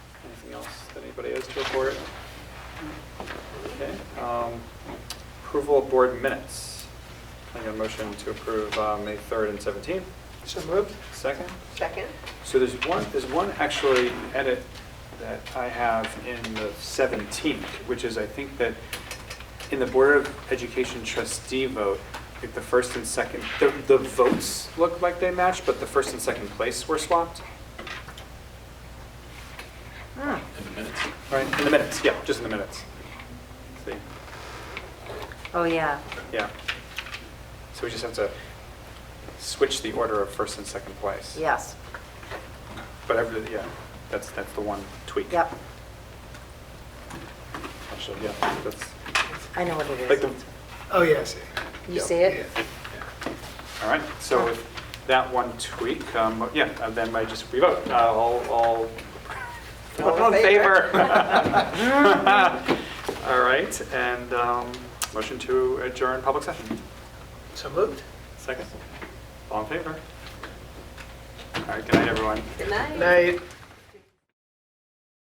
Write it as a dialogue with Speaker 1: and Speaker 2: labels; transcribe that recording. Speaker 1: Anybody else to report? Okay, um, approval of board minutes. I got a motion to approve uh, May 3rd and 17th.
Speaker 2: So moved.
Speaker 1: Second?
Speaker 3: Second?
Speaker 1: So there's one, there's one actually edit that I have in the 17th, which is I think that in the Board of Education trustee vote, like the first and second, the, the votes look like they match, but the first and second place were swapped.
Speaker 3: Hmm.
Speaker 4: in the minutes.
Speaker 1: Right. In the minutes, yeah, just in the minutes. See,
Speaker 3: Oh, yeah.
Speaker 1: yeah. So we just have to switch the order of first and second place.
Speaker 3: Yes.
Speaker 1: But every, yeah, that's, that's the one tweak.
Speaker 3: Yep.
Speaker 1: Actually, yeah, that's,
Speaker 3: I know what it
Speaker 1: like
Speaker 3: is.
Speaker 1: the,
Speaker 2: Oh, yeah, I see.
Speaker 3: You see it?
Speaker 2: Yeah.
Speaker 1: all right, so with that one tweak, um, yeah, and then I just revote, uh, all, all.
Speaker 3: All in
Speaker 1: All
Speaker 3: favor.
Speaker 1: All right, and, um, motion to adjourn public session.
Speaker 2: So moved.
Speaker 1: Second. All in favor? All right, good night, everyone.
Speaker 3: Good night.
Speaker 2: Night.